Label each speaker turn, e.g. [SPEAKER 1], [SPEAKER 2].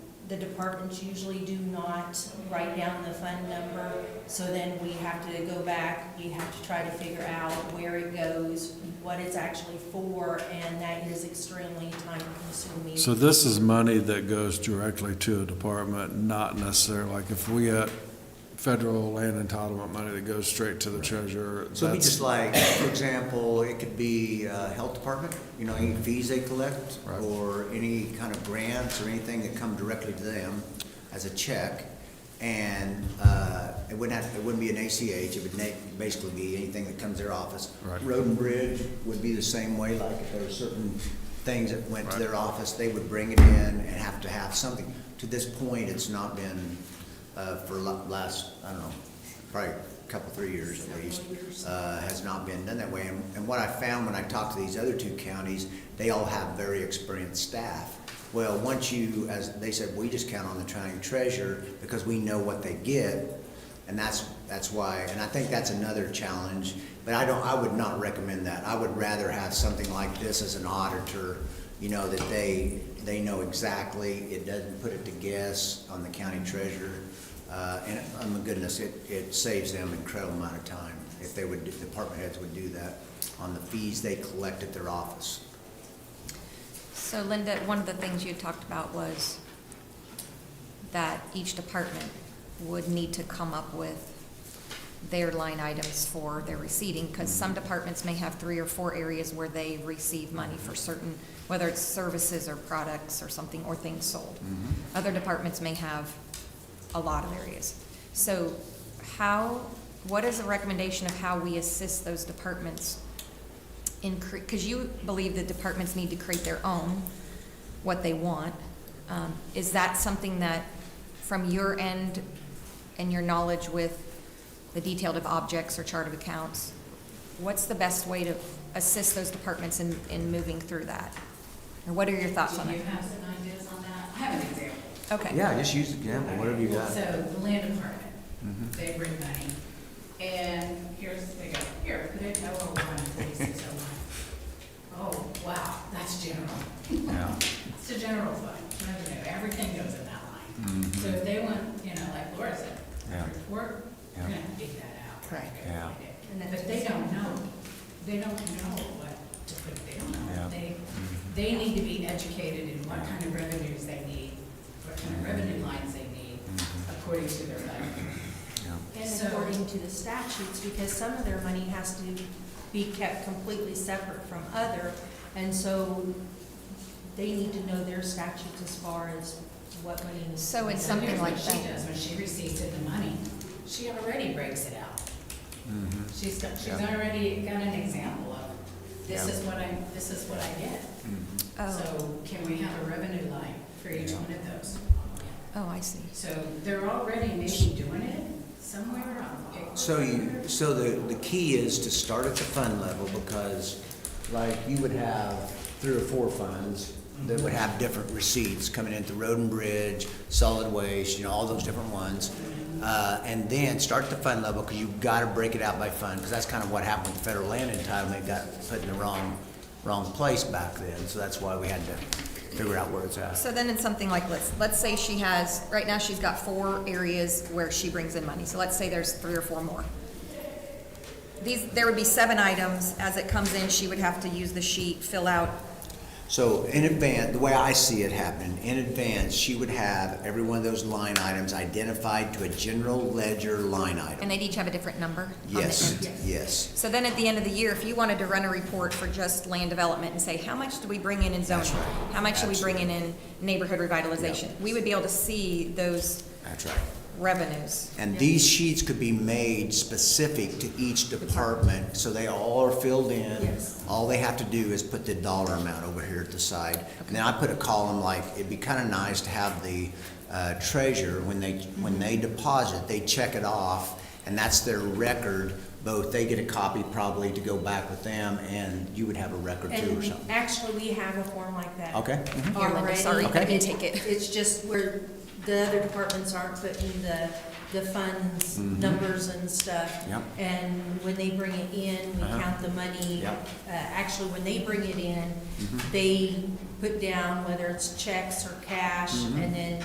[SPEAKER 1] the departments usually do not write down the fund number, so then we have to go back, we have to try to figure out where it goes, what it's actually for, and that is extremely time consuming.
[SPEAKER 2] So this is money that goes directly to a department, not necessarily, like if we had federal land entitlement money that goes straight to the treasurer,
[SPEAKER 3] So it'd be
[SPEAKER 2] that's,
[SPEAKER 3] just like, for example, it could be uh, health department, you know, any fees they collect,
[SPEAKER 2] Right.
[SPEAKER 3] or any kind of grants or anything that come directly to them as a check. And uh, it wouldn't have, it wouldn't be an ACH, it would na- basically be anything that comes to their office.
[SPEAKER 2] Right.
[SPEAKER 3] Road and bridge would be the same way, like if there were certain things that went to their office, they would bring it in and have to have something. To this point, it's not been, uh, for la- last, I don't know, probably a couple, three years at least, uh, has not been done that way. And and what I found when I talked to these other two counties, they all have very experienced staff. Well, once you, as they said, we just count on the county treasurer because we know what they get. And that's, that's why, and I think that's another challenge, but I don't, I would not recommend that. I would rather have something like this as an auditor, you know, that they, they know exactly, it doesn't put it to guess on the county treasurer. Uh, and, oh my goodness, it, it saves them an incredible amount of time if they would, if department heads would do that on the fees they collect at their office.
[SPEAKER 4] So Linda, one of the things you talked about was that each department would need to come up with their line items for their receiving, because some departments may have three or four areas where they receive money for certain, whether it's services or products or something, or things sold. Other departments may have a lot of areas. So how, what is the recommendation of how we assist those departments in, because you believe the departments need to create their own, what they want. Um, Is that something that, from your end and your knowledge with the detailed of objects or chart of accounts, what's the best way to assist those departments in, in moving through that? Or what are your thoughts on
[SPEAKER 5] Do
[SPEAKER 4] it?
[SPEAKER 5] you have some ideas on that? I have an example.
[SPEAKER 4] Okay.
[SPEAKER 3] just use the example,
[SPEAKER 5] So the land department,
[SPEAKER 3] Mm-hmm.
[SPEAKER 5] they bring money, and here's, they go, here, put it in oh one, forty-six oh one. Oh, wow, that's general.
[SPEAKER 3] Yeah.
[SPEAKER 5] It's a general fund, revenue, everything goes in that line. So if they want, you know, like Laura said,
[SPEAKER 3] Mm-hmm. Yeah.
[SPEAKER 5] report,
[SPEAKER 3] Yeah.
[SPEAKER 5] we're gonna have to dig that out.
[SPEAKER 4] Right.
[SPEAKER 5] Okay,
[SPEAKER 3] Yeah.
[SPEAKER 5] right. But they don't know, they don't know what to put, they don't
[SPEAKER 3] Yeah. Mm-hmm.
[SPEAKER 5] know. They, they need to be educated in what kind of revenues they need, what kind of
[SPEAKER 3] Mm-hmm.
[SPEAKER 5] revenue lines they need, according to their budget.
[SPEAKER 1] And
[SPEAKER 5] So-
[SPEAKER 1] according to the statutes, because some of their money has to be kept completely separate from other, and so they need to know their statutes as far as what money is.
[SPEAKER 4] So it's
[SPEAKER 5] So here's
[SPEAKER 4] something
[SPEAKER 5] what
[SPEAKER 4] like
[SPEAKER 5] She
[SPEAKER 4] that.
[SPEAKER 5] does, when she receives it, the money, she already breaks it out.
[SPEAKER 2] Mm-hmm.
[SPEAKER 5] She's, got- she's
[SPEAKER 3] Yeah.
[SPEAKER 5] already got an example of, this
[SPEAKER 3] Yeah.
[SPEAKER 5] is what I, this is what I get.
[SPEAKER 4] Oh,
[SPEAKER 5] So can we have a revenue line for each
[SPEAKER 3] Yeah.
[SPEAKER 5] one of those?
[SPEAKER 4] oh, I see.
[SPEAKER 5] So they're already maybe doing it somewhere on.
[SPEAKER 3] So you, so the, the key is to start at the fund level because like you would have three or four funds that would have different receipts coming in through road and bridge, solid waste, you know, all those different ones. Uh, and then start at the fund level because you've got to break it out by fund because that's kind of what happened with federal land entitlement. It got put in the wrong, wrong place back then. So that's why we had to figure out where it's at.
[SPEAKER 4] So then in something like, let's, let's say she has, right now she's got four areas where she brings in money, so let's say there's three or four more. These, there would be seven items, as it comes in, she would have to use the sheet, fill out,
[SPEAKER 3] So in advance, the way I see it happening, in advance, she would have every one of those line items identified to a general ledger line
[SPEAKER 4] and
[SPEAKER 3] item.
[SPEAKER 4] they'd each have a different number? on the
[SPEAKER 3] Yes,
[SPEAKER 4] end.
[SPEAKER 3] yes.
[SPEAKER 4] So then at the end of the year, if you wanted to run a report for just land development and say, how much do we bring in in zoning?
[SPEAKER 3] That's right.
[SPEAKER 4] How much do we bring in in neighborhood revitalization? We would be able to see those
[SPEAKER 3] That's right.
[SPEAKER 4] revenues.
[SPEAKER 3] And these sheets could be made specific to each department, so they all are filled in. All they have to do is put the dollar amount over here at the side. And then I put a column like, it'd be kind of nice to have the uh, treasurer, when they, when they deposit, they check it off, and that's their record. Both, they get a copy probably to go back with them, and you would have a record too or
[SPEAKER 1] And
[SPEAKER 3] something.
[SPEAKER 1] actually, we have a form like that.
[SPEAKER 3] Okay? mhm.
[SPEAKER 4] Here, Linda,
[SPEAKER 1] already.
[SPEAKER 4] sorry, I didn't take it.
[SPEAKER 1] It's just where the other departments aren't putting the, the funds, numbers and stuff.
[SPEAKER 3] Mm-hmm. Yep.
[SPEAKER 1] And when they bring it in, we
[SPEAKER 3] Uh-huh.
[SPEAKER 1] count the money.
[SPEAKER 3] Yep. Mm-hmm.
[SPEAKER 1] Uh, actually, when they
[SPEAKER 3] Mm-hmm.
[SPEAKER 1] bring it in, they put down whether it's checks or cash, and then